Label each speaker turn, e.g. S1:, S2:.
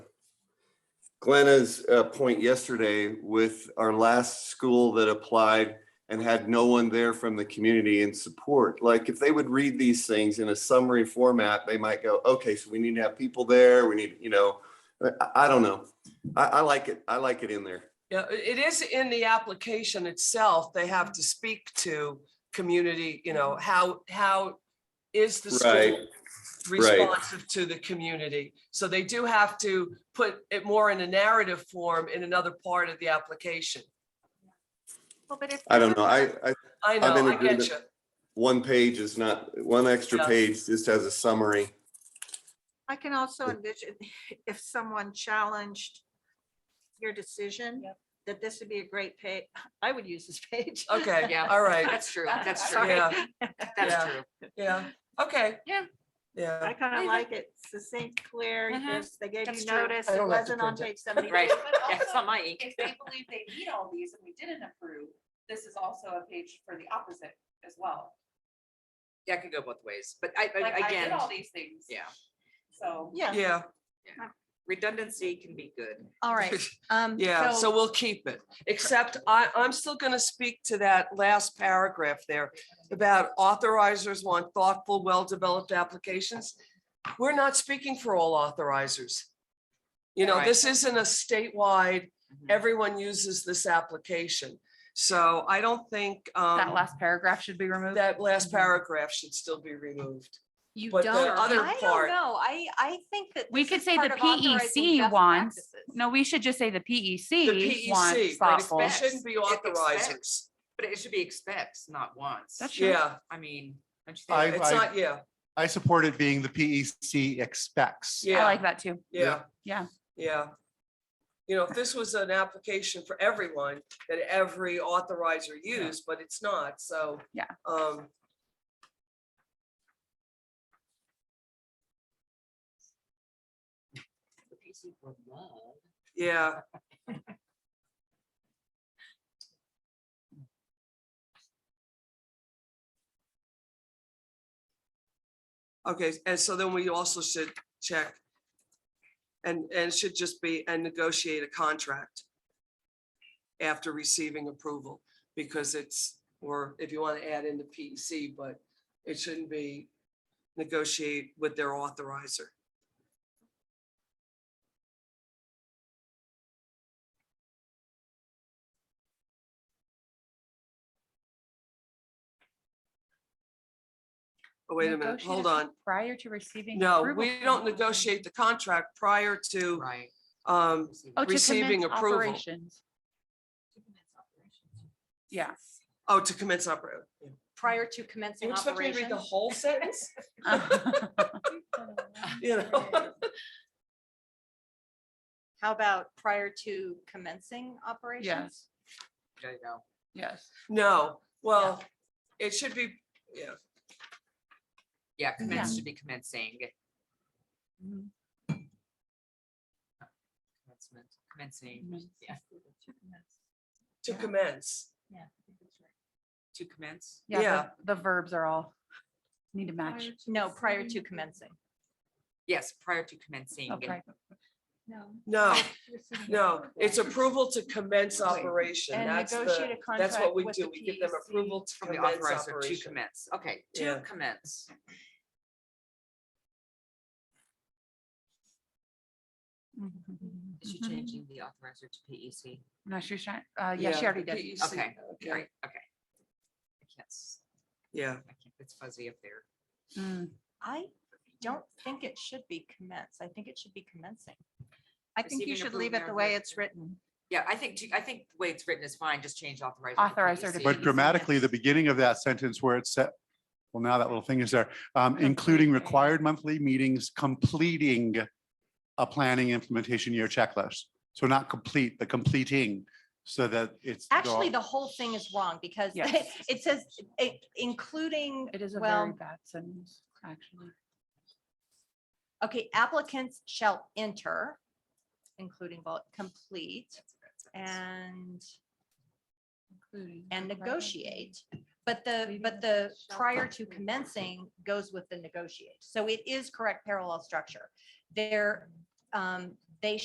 S1: Glenna's uh, point yesterday with our last school that applied and had no one there from the community in support. Like if they would read these things in a summary format, they might go, okay, so we need to have people there. We need, you know, I, I don't know. I, I like it. I like it in there.
S2: Yeah, i- it is in the application itself. They have to speak to community, you know, how, how is the
S1: Right,
S2: school responsive to the community? So they do have to put it more in a narrative form in another part of the application.
S3: Well, but if.
S1: I don't know. I, I, I'm
S2: I know,
S1: in
S2: I get
S1: agreement.
S2: you.
S1: one page is not, one extra
S2: Yeah.
S1: page just has a summary.
S3: I can also envision if someone challenged your decision,
S4: Yep.
S3: that this would be a great page. I would use this page.
S2: Okay,
S4: Yeah.
S2: all right,
S4: That's true. That's true.
S3: Sorry.
S2: Yeah.
S4: That's
S2: Yeah.
S4: true.
S2: yeah, okay.
S4: Yeah.
S2: Yeah,
S3: I kind
S4: I
S3: of
S4: agree.
S3: like it succinct, clear,
S4: Mhm.
S3: because they gave
S4: That's
S3: you
S4: true.
S3: notice,
S2: I
S3: it
S2: don't have to
S3: wasn't on
S2: print
S3: page seventy-two.
S4: Right.
S5: But
S4: Yeah, it's not
S5: also,
S4: my ink.
S5: If they believe they need all these and we didn't approve, this is also a page for the opposite as well.
S4: Yeah, it could go both ways, but I,
S5: Like,
S4: I-
S5: I did
S4: again,
S5: all these things.
S4: yeah,
S5: So.
S3: Yeah,
S2: yeah,
S4: redundancy can be good.
S6: All right, um.
S2: yeah, so we'll keep it, except I, I'm still gonna speak to that last paragraph there about authorizers want thoughtful, well-developed applications. We're not speaking for all authorizers. You know,
S4: Right.
S2: this isn't a statewide,
S7: Mm-hmm.
S2: everyone uses this application. So I don't think
S7: That
S2: um,
S7: last paragraph Mm-hmm. should be removed.
S2: that last paragraph should still be removed.
S6: You
S2: but the other
S6: don't.
S3: I
S2: part.
S3: don't know. I, I think that.
S7: We
S3: this
S7: could
S3: is
S7: say
S3: part
S7: the
S3: of authorizing
S7: PEC
S3: best
S7: wants,
S3: practices.
S7: no, we should just say the
S2: The
S7: PEC wants
S2: PEC, right,
S7: thoughtful.
S2: it shouldn't be
S4: Expects.
S2: authorizers.
S4: But it should be expects, not wants.
S7: That's true.
S2: Yeah,
S4: I mean, don't you
S8: I-
S4: think?
S2: it's
S8: I-
S2: not, yeah,
S8: I support it being the PEC expects.
S7: I
S2: yeah,
S7: like that too.
S2: yeah.
S7: Yeah.
S2: Yeah. You know, if this was an application for everyone that every authorizer used, but it's not, so.
S7: Yeah.
S2: Um,
S4: The PC for love.
S2: yeah. Okay, and so then we also should check. And, and it should just be, and negotiate a contract. After receiving approval, because it's, or if you want to add in the PEC, but it shouldn't be. Negotiate with their authorizer. Oh, wait a minute, hold
S7: Negotiated
S2: on.
S7: Prior to receiving.
S2: No,
S7: approval
S2: we
S7: from-
S2: don't negotiate the contract prior to
S4: Right.
S2: um
S7: Oh, to commence
S2: receiving approval.
S7: operations. Yeah.
S2: oh to commence opera.
S3: Prior to commencing
S2: You expect me to read the
S3: operations.
S2: whole sentence? You know,
S3: How about prior to commencing operations?
S7: Yes,
S4: There you go.
S7: yes.
S2: no, well, it should be, yeah,
S4: Yeah, commence should be commencing.
S7: Mhm.
S4: Commencement, Commencing,
S7: Commence.
S4: yeah,
S2: to
S7: Yeah.
S2: commence.
S4: to commence.
S7: Yeah, the-
S2: Yeah.
S7: The verbs are all need to match.
S3: No, prior to commencing.
S4: Yes, prior to commencing.
S7: Okay.
S2: No, Oh, no, it's approval to commence operation. That's the, that's what we do. We give them approval to
S4: From the
S2: commence
S4: authorizer to
S2: operation.
S4: commence. Okay,
S2: Yeah.
S4: to commence. Is she
S3: Mm-hmm.
S4: changing the authorizer to E PEC?
S7: Mm-hmm. No, she was trying, uh, yeah, she
S2: Yeah,
S7: already did.
S2: PEC,
S4: Okay,
S2: Okay,
S4: Right, okay. I can't, s-
S2: yeah.
S4: I can't, it's fuzzy up there.
S7: Mm,
S3: I don't think it should be commence. I think it should be commencing. I think you
S4: Receiving
S3: should leave
S4: approval
S3: it the way
S4: thereof.
S3: it's written.
S4: Yeah, I think, to- I think the way it's written is fine, just change authorizer. to E
S7: Authorizer to
S4: PEC.
S3: E
S8: But grammatically, the beginning of that sentence where it said, well, now that little thing is there, um, including
S7: Completing.
S8: required monthly meetings, completing a planning implementation year checklist. So not complete, the completing, so that it's. they're all-
S3: Actually, the whole thing is wrong because
S7: Yes.
S3: it says eh, including,
S7: It is a very
S3: well,
S7: bad sentence, actually.
S3: okay, applicants shall enter, including, bullet, complete and,
S7: Including
S3: and
S7: required
S3: negotiate. But the,
S7: Leaving
S3: but the
S7: shall
S3: prior to
S7: include.
S3: commencing goes with the negotiate. So it is correct parallel structure. There, um,